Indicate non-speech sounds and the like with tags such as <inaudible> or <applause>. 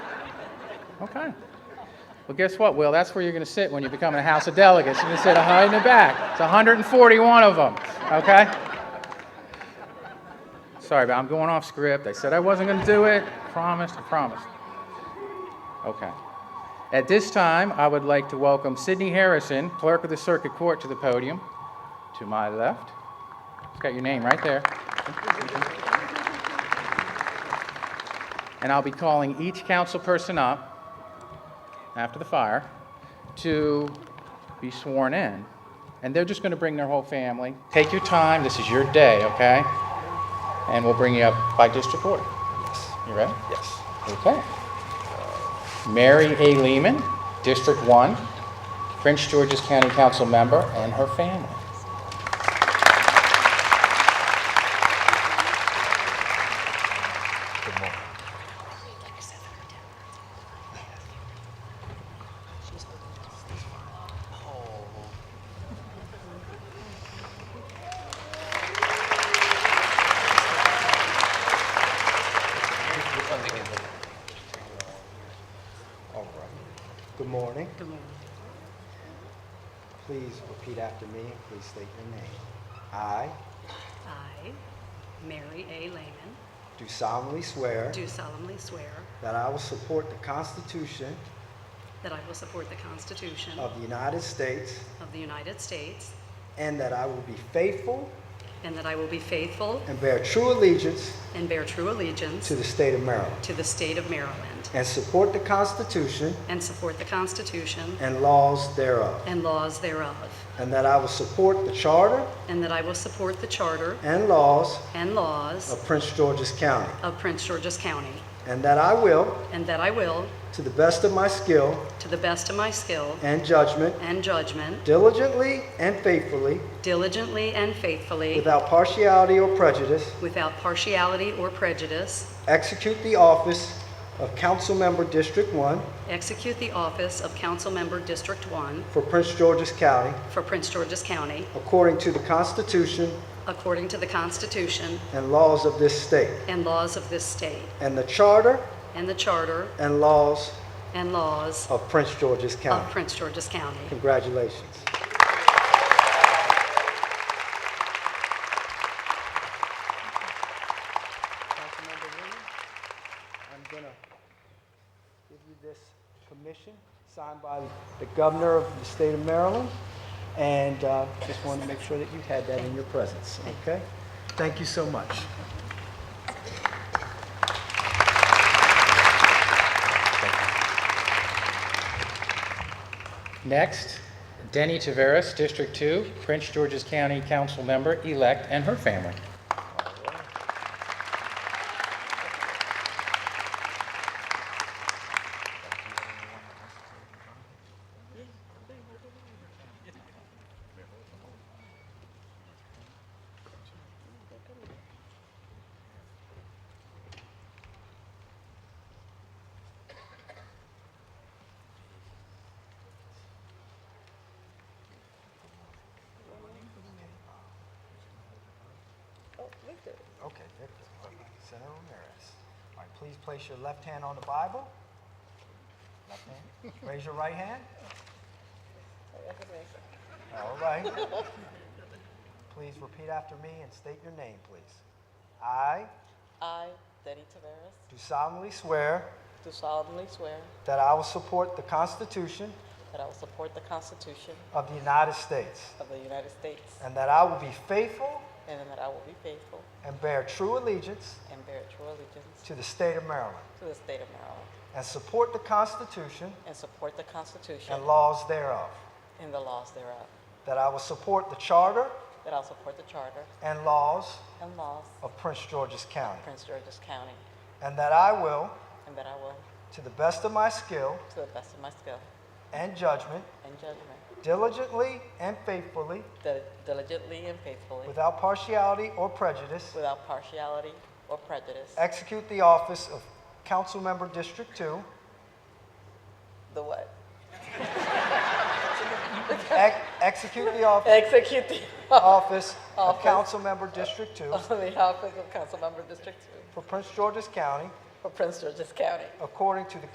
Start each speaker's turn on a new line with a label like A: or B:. A: Okay. Well, guess what, Will? That's where you're going to sit when you become a House of Delegates. You're going to sit high in the back. It's 141 of them, okay? Sorry, but I'm going off script. I said I wasn't going to do it. Promised, I promised. Okay. At this time, I would like to welcome Sidney Harrison, Clerk of the Circuit Court, to the podium. To my left. It's got your name right there. And I'll be calling each council person up after the fire to be sworn in. And they're just going to bring their whole family. Take your time. This is your day, okay? And we'll bring you up by district order. You ready?
B: Yes.
A: Okay. Mary A. Lehman, District 1, Prince George's County Council member, and her family.
B: All right. Good morning. Good morning. Please repeat after me and please state your name. I
C: I, Mary A. Lehman,
B: do solemnly swear
C: do solemnly swear
B: that I will support the Constitution
C: that I will support the Constitution
B: of the United States
C: of the United States
B: and that I will be faithful
C: and that I will be faithful
B: and bear true allegiance
C: and bear true allegiance
B: to the state of Maryland
C: to the state of Maryland
B: and support the Constitution
C: and support the Constitution
B: and laws thereof,
C: and laws thereof,
B: and that I will support the Charter
C: and that I will support the Charter
B: and laws
C: and laws
B: of Prince George's County,
C: of Prince George's County,
B: and that I will,
C: and that I will,
B: to the best of my skill
C: to the best of my skill
B: and judgment,
C: and judgment,
B: Diligently and faithfully,
C: diligently and faithfully,
B: without partiality or prejudice,
C: without partiality or prejudice,
B: execute the office of Council Member District 1
C: Execute the office of Council Member District 1
B: for Prince George's County
C: for Prince George's County
B: according to the Constitution
C: according to the Constitution
B: and laws of this state,
C: and laws of this state,
B: and the Charter
C: and the Charter
B: and laws
C: and laws
B: of Prince George's
C: of
B: County.
C: Prince George's County.
B: Congratulations. Councilmember Williams, I'm going to give you this commission signed by the governor of the state of Maryland, and uh, just wanted to make sure that you had that in your presence, okay? Thank you so much.
A: Next, Denny Taveras, District 2, Prince George's County Council member-elect, and her family.
B: Okay, there it is. Senator Ramirez. All right, please place your left hand on the Bible. Left hand. Raise your right hand. All right. <laughs> Please repeat after me and state your name, please. I
D: I, Denny Taveras,
B: do solemnly swear
D: do solemnly swear
B: that I will support the Constitution
D: that I will support the Constitution
B: of the United States
D: of the United States
B: and that I will be faithful
D: and that I will be faithful
B: and bear true allegiance
D: and bear true allegiance
B: to the state of Maryland
D: to the state of Maryland
B: and support the Constitution
D: and support the Constitution
B: and laws thereof.
D: and the laws thereof,
B: That I will support the Charter
D: that I will support the Charter
B: and laws
D: and laws
B: of Prince George's County.
D: of Prince George's County,
B: And that I will,
D: and that I will,
B: to the best of my skill
D: to the best of my skill
B: and judgment,
D: and judgment,
B: diligently and faithfully,
D: dil- diligently and faithfully,
B: without partiality or prejudice,
D: without partiality or prejudice,
B: execute the office of Councilmember District 2,
D: the what?
B: ex- execute the office,
D: Execute <laughs> the
B: office of
D: Office.
B: Councilmember District 2
D: of the office of Council Member District Two
B: for Prince George's County
D: for Prince George's County.
B: according to the